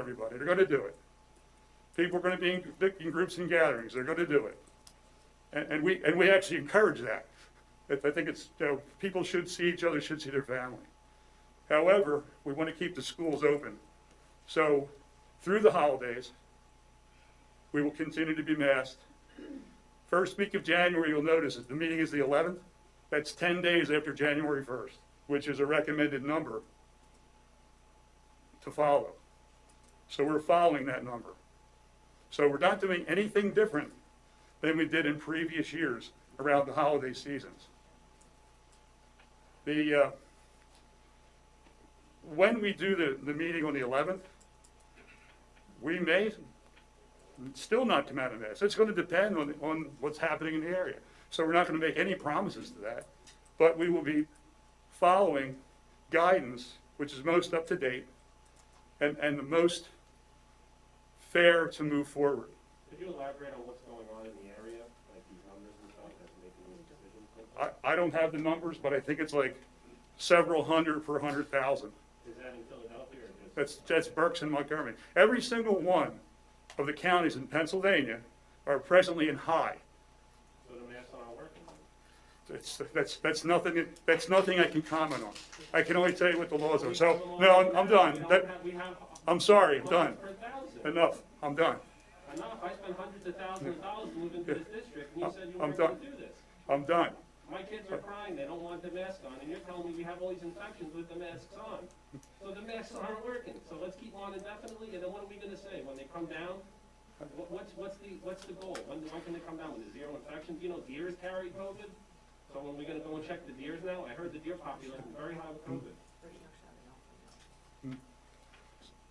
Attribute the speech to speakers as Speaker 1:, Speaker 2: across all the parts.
Speaker 1: everybody, they're gonna do it. People are gonna be in, in groups and gatherings, they're gonna do it. And, and we, and we actually encourage that. I I think it's, you know, people should see each other, should see their family. However, we wanna keep the schools open. So, through the holidays, we will continue to be masked. First week of January, you'll notice that the meeting is the eleventh. That's ten days after January first, which is a recommended number to follow. So we're following that number. So we're not doing anything different than we did in previous years around the holiday seasons. The, uh, when we do the, the meeting on the eleventh, we may still not come out of this. It's gonna depend on, on what's happening in the area. So we're not gonna make any promises to that, but we will be following guidance, which is most up to date and, and the most fair to move forward.
Speaker 2: Could you elaborate on what's going on in the area, like these numbers and stuff that's making these decisions?
Speaker 1: I, I don't have the numbers, but I think it's like several hundred per hundred thousand.
Speaker 2: Is that in Philadelphia or just?
Speaker 1: That's, that's Berks and Montgomery. Every single one of the counties in Pennsylvania are presently in high.
Speaker 2: So the masks aren't working?
Speaker 1: That's, that's, that's nothing, that's nothing I can comment on. I can only tell you what the laws are. So, no, I'm, I'm done. That,
Speaker 2: We have.
Speaker 1: I'm sorry, I'm done.
Speaker 2: hundreds per thousand.
Speaker 1: Enough, I'm done.
Speaker 2: Enough, I spent hundreds of thousands of dollars moving to this district, and you said you
Speaker 1: I'm
Speaker 2: weren't gonna
Speaker 1: done.
Speaker 2: do this.
Speaker 1: I'm done.
Speaker 2: My kids are crying, they don't want the mask on, and you're telling me we have all these infections with the masks on. So the masks aren't working, so let's keep on indefinitely, and then what are we gonna say, when they come down? What- What's, what's the, what's the goal? When, when can they come down with a zero infections? You know, deers carry COVID, so when we gonna go and check the deers now? I heard the deer population is very high with COVID.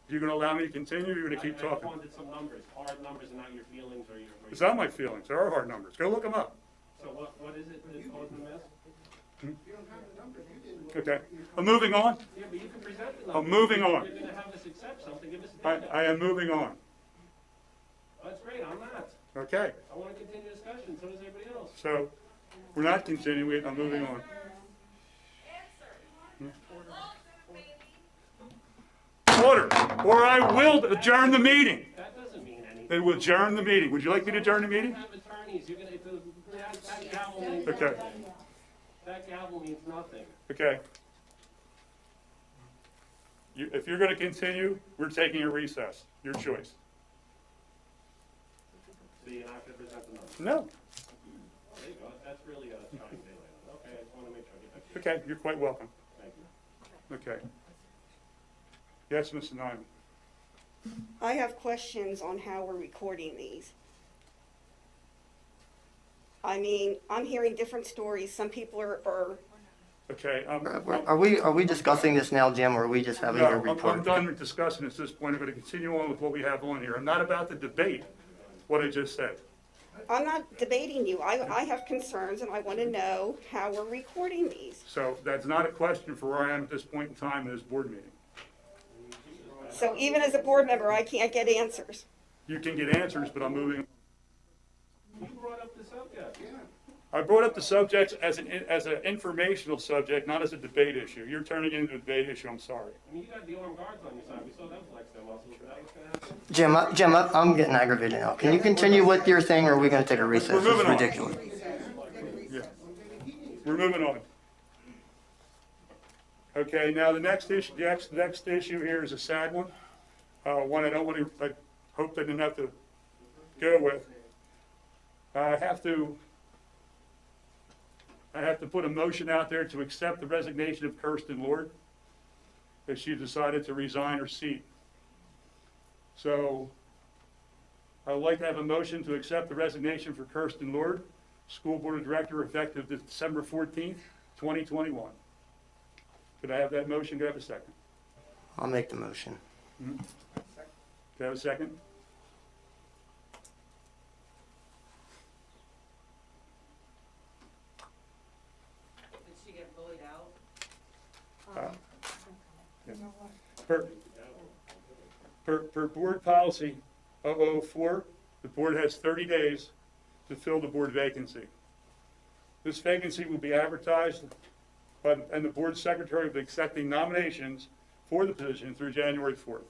Speaker 1: You gonna allow me to continue? You're gonna
Speaker 2: I-
Speaker 1: keep
Speaker 2: I just
Speaker 1: talking?
Speaker 2: wanted some numbers, hard numbers, and not your feelings or your. or
Speaker 1: It's
Speaker 2: your-
Speaker 1: not my feelings. There are hard numbers. Go look them up.
Speaker 2: So what, what is it that's causing the mask?
Speaker 1: Okay. I'm moving on.
Speaker 2: Yeah, but you can present the
Speaker 1: I'm
Speaker 2: numbers.
Speaker 1: Oh, moving on.
Speaker 2: You're gonna have us accept something, give us
Speaker 1: I,
Speaker 2: data.
Speaker 1: I am moving on.
Speaker 2: That's great, I'm not.
Speaker 1: Okay.
Speaker 2: I want to continue discussion, so does everybody else.
Speaker 1: So we're not continuing. I'm moving on. Order, or I will adjourn the meeting.
Speaker 2: That doesn't mean anything.
Speaker 1: They will adjourn the meeting. Would you like me to adjourn the
Speaker 2: You
Speaker 1: meeting?
Speaker 2: have attorneys, you're gonna, if the- that that gavel means,
Speaker 1: Okay,
Speaker 2: that gavel means nothing.
Speaker 1: okay. You, if you're gonna continue, we're taking a recess. Your choice.
Speaker 2: So you're not gonna present the numbers.
Speaker 1: No,
Speaker 2: There you go, that's really a trying daylight. Okay, I just want to make sure I get that.
Speaker 1: okay, you're quite welcome.
Speaker 2: Thank you.
Speaker 1: Okay. Yes, Mr. Nyman?
Speaker 3: I have questions on how we're recording these. I mean, I'm hearing different stories. Some people are, are
Speaker 1: Okay, um,
Speaker 4: Uh, we're- Are we, are we discussing this now, Jim, or are we just having
Speaker 1: no,
Speaker 4: a
Speaker 1: I'm-
Speaker 4: report?
Speaker 1: I'm done with discussing this at this point. I'm gonna continue on with what we have on here. I'm not about to debate what I just said.
Speaker 3: I'm not debating you. I, I have concerns and I want to know how we're recording these.
Speaker 1: So that's not a question for where I am at this point in time in this board meeting.
Speaker 3: So even as a board member, I can't get answers.
Speaker 1: You can get answers, but I'm moving.
Speaker 2: You brought up the subject.
Speaker 1: I brought up the subject as an, as an informational subject, not as a debate issue. You're turning it into a debate issue, I'm sorry.
Speaker 2: I mean, you got the armed guards on your side. We saw them flex their muscles, is that what's gonna happen?
Speaker 4: Jim, I- Jim, I- I'm getting aggravated now. Can you continue with your thing, or are we gonna take a recess?
Speaker 1: moving
Speaker 4: It's
Speaker 1: on.
Speaker 4: ridiculous.
Speaker 1: Yeah. We're moving on. Okay, now the next issue, the next, next issue here is a sad one. Uh, one I don't want to, I hope I didn't have to go with. I have to, I have to put a motion out there to accept the resignation of Kirsten Lord. That she decided to resign her seat. So I would like to have a motion to accept the resignation for Kirsten Lord, School Board Director, effective December fourteenth, twenty twenty-one. Could I have that motion? Could I have a second?
Speaker 4: I'll make the motion.
Speaker 1: Could I have a second?
Speaker 5: Did she get bullied out?
Speaker 1: Per, per, per board policy 004, the board has thirty days to fill the board vacancy. This vacancy will be advertised, but, and the board secretary will be accepting nominations for the position through January fourth.